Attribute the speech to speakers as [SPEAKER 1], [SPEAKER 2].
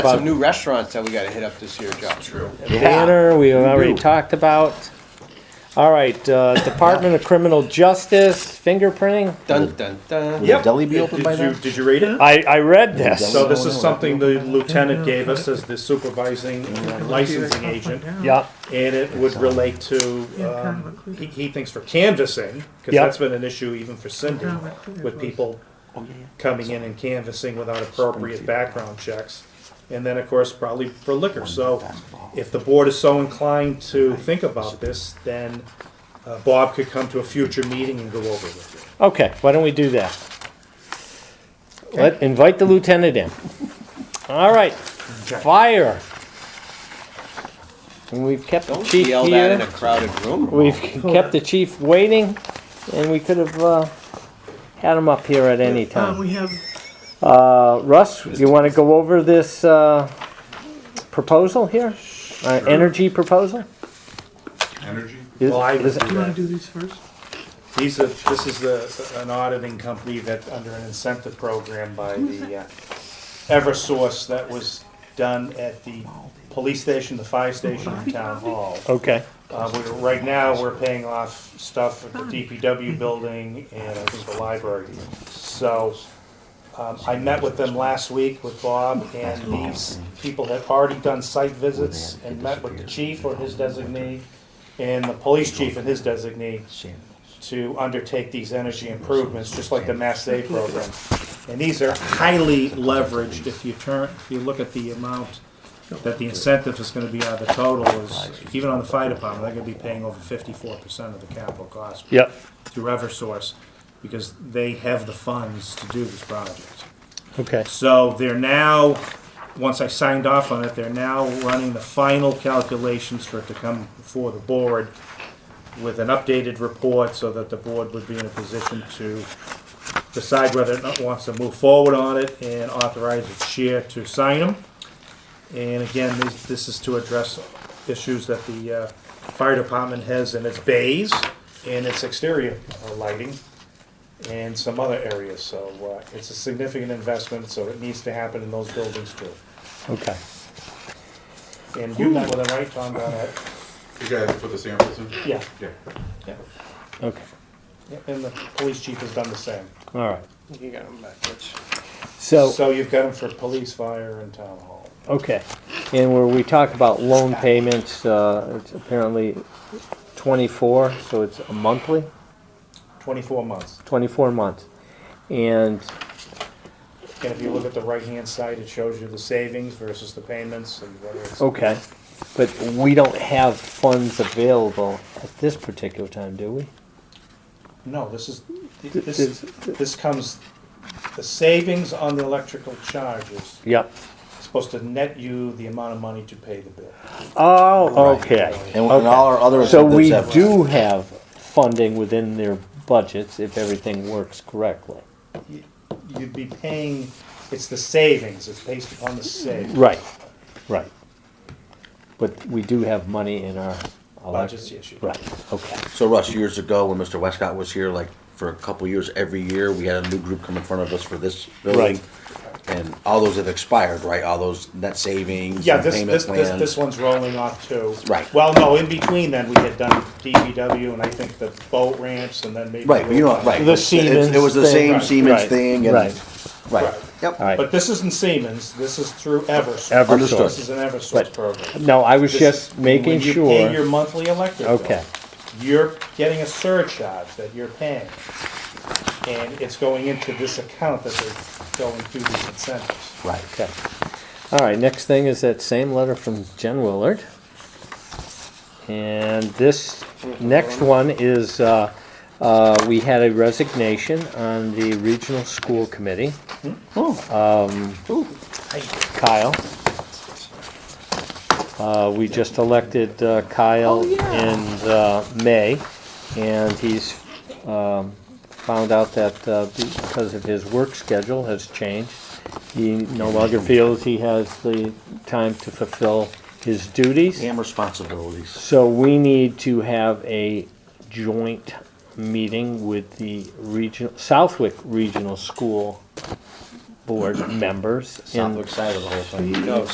[SPEAKER 1] Some new restaurants that we gotta hit up this year, Joe. True.
[SPEAKER 2] banner we have already talked about. All right, uh, Department of Criminal Justice, fingerprinting.
[SPEAKER 1] Dun, dun, dun.
[SPEAKER 3] Will
[SPEAKER 4] Yep.
[SPEAKER 3] the deli be open
[SPEAKER 4] Did
[SPEAKER 3] by
[SPEAKER 4] you-
[SPEAKER 3] then?
[SPEAKER 4] Did you read it?
[SPEAKER 2] I, I read this.
[SPEAKER 4] So this is something the lieutenant gave us as the supervising and licensing agent.
[SPEAKER 2] Yeah,
[SPEAKER 4] And it would relate to, um, he, he thinks for canvassing, cause
[SPEAKER 2] Yep.
[SPEAKER 4] that's been an issue even for Cindy, with people coming in and canvassing without appropriate background checks. And then, of course, probably for liquor, so if the board is so inclined to think about this, then uh, Bob could come to a future meeting and go over with it.
[SPEAKER 2] okay, why don't we do that? Let, invite the lieutenant in. All right, fire. And we've kept the
[SPEAKER 1] Don't
[SPEAKER 2] chief
[SPEAKER 1] yell that in a
[SPEAKER 2] here,
[SPEAKER 1] crowded room.
[SPEAKER 2] we've kept the chief waiting, and we could have, uh, had him up here at any time.
[SPEAKER 5] Um, we have,
[SPEAKER 2] Uh, Russ, you want to go over this uh, proposal here? Uh, Energy proposal?
[SPEAKER 6] Energy?
[SPEAKER 2] Is-
[SPEAKER 4] Well, I would
[SPEAKER 2] is-
[SPEAKER 4] do
[SPEAKER 5] you wanna
[SPEAKER 4] that.
[SPEAKER 5] do these first?
[SPEAKER 4] These are, this is the, an auditing company that, under an incentive program by the uh, Eversource that was done at the police station, the fire station, and town hall.
[SPEAKER 2] Okay,
[SPEAKER 4] Uh, we're, right now, we're paying off stuff at the DPW building and I think the library. So, um, I met with them last week with Bob and these people had already done site visits and met with the chief or his designee and the police chief and his designee to undertake these energy improvements, just like the Mass Save program. And these are highly leveraged, if you turn, if you look at the amount that the incentive is gonna be out of the total is, even on the fire department, they're gonna be paying over fifty-four percent of the capital cost
[SPEAKER 2] yep,
[SPEAKER 4] through Eversource, because they have the funds to do this project.
[SPEAKER 2] okay,
[SPEAKER 4] So they're now, once I signed off on it, they're now running the final calculations for it to come before the board with an updated report so that the board would be in a position to decide whether it not wants to move forward on it and authorize its chair to sign them. And again, this, this is to address issues that the uh, fire department has in its bays and its exterior uh, lighting and some other areas, so uh, it's a significant investment, so it needs to happen in those buildings too.
[SPEAKER 2] okay.
[SPEAKER 4] And you met with them, right, Tom, about that?
[SPEAKER 6] You guys put the samples in?
[SPEAKER 4] Yeah,
[SPEAKER 6] Yeah.
[SPEAKER 4] yeah,
[SPEAKER 2] Okay,
[SPEAKER 4] yeah, and the police chief has done the same.
[SPEAKER 2] all right.
[SPEAKER 1] You got 'em backwards.
[SPEAKER 2] So,
[SPEAKER 4] So you've got them for police, fire, and town hall.
[SPEAKER 2] okay, and where we talk about loan payments, uh, it's apparently 24, so it's a monthly,
[SPEAKER 4] Twenty-four months.
[SPEAKER 2] 24 months. And,
[SPEAKER 4] And if you look at the right-hand side, it shows you the savings versus the payments and whether it's.
[SPEAKER 2] okay, but we don't have funds available at this particular time, do we?
[SPEAKER 4] No, this is,
[SPEAKER 2] This-
[SPEAKER 4] this, this comes, the savings on the electrical charges
[SPEAKER 2] Yep.
[SPEAKER 4] is supposed to net you the amount of money to pay the bill.
[SPEAKER 2] Oh, okay.
[SPEAKER 3] And, and all our other
[SPEAKER 2] So we
[SPEAKER 3] incentives have-
[SPEAKER 2] do have funding within their budgets if everything works correctly.
[SPEAKER 4] you'd be paying, it's the savings, it's based upon the savings.
[SPEAKER 2] Right, right. But we do have money in our. elect-
[SPEAKER 4] Budget's the issue.
[SPEAKER 2] Right, okay.
[SPEAKER 3] So Russ, years ago when Mr. Westcott was here, like for a couple years, every year we had a new group come in front of us for this building.
[SPEAKER 2] Right.
[SPEAKER 3] And all those have expired, right? All those net savings
[SPEAKER 4] Yeah,
[SPEAKER 3] and
[SPEAKER 4] this,
[SPEAKER 3] payment
[SPEAKER 4] this, this, this
[SPEAKER 3] plans.
[SPEAKER 4] one's rolling off too.
[SPEAKER 3] Right.
[SPEAKER 4] Well, no, in between then, we had done DPW and I think the boat ramps and then maybe.
[SPEAKER 3] Right, but you know, right.
[SPEAKER 2] The
[SPEAKER 3] it's- it's- It was the
[SPEAKER 2] Siemens
[SPEAKER 3] same
[SPEAKER 2] thing.
[SPEAKER 3] Siemens
[SPEAKER 4] Right,
[SPEAKER 2] right,
[SPEAKER 3] thing and,
[SPEAKER 2] right.
[SPEAKER 3] right,
[SPEAKER 4] Right.
[SPEAKER 2] All
[SPEAKER 3] yep.
[SPEAKER 2] right.
[SPEAKER 4] But this isn't Siemens, this is through Eversource.
[SPEAKER 2] Eversource.
[SPEAKER 4] This is an
[SPEAKER 2] Right.
[SPEAKER 4] Eversource program.
[SPEAKER 2] No, I was
[SPEAKER 4] This
[SPEAKER 2] just
[SPEAKER 4] is-
[SPEAKER 2] making
[SPEAKER 4] When you pay your
[SPEAKER 2] sure.
[SPEAKER 4] monthly electric bill.
[SPEAKER 2] Okay,
[SPEAKER 4] you're getting a surcharge that you're paying. And it's going into this account that they're going through these incentives.
[SPEAKER 3] Right.
[SPEAKER 2] okay. All right, next thing is that same letter from Jen Willard. And this next one is, uh, uh, we had a resignation on the regional school committee. Kyle. Uh, we just elected uh, Kyle in, uh, May, and he's, um, found out that, uh, because of his work schedule has changed, he no longer feels he has the time to fulfill his duties.
[SPEAKER 3] And responsibilities.
[SPEAKER 2] So we need to have a joint meeting with the regional, Southwick Regional School Board members in
[SPEAKER 3] Southwick side of the whole thing.
[SPEAKER 1] No,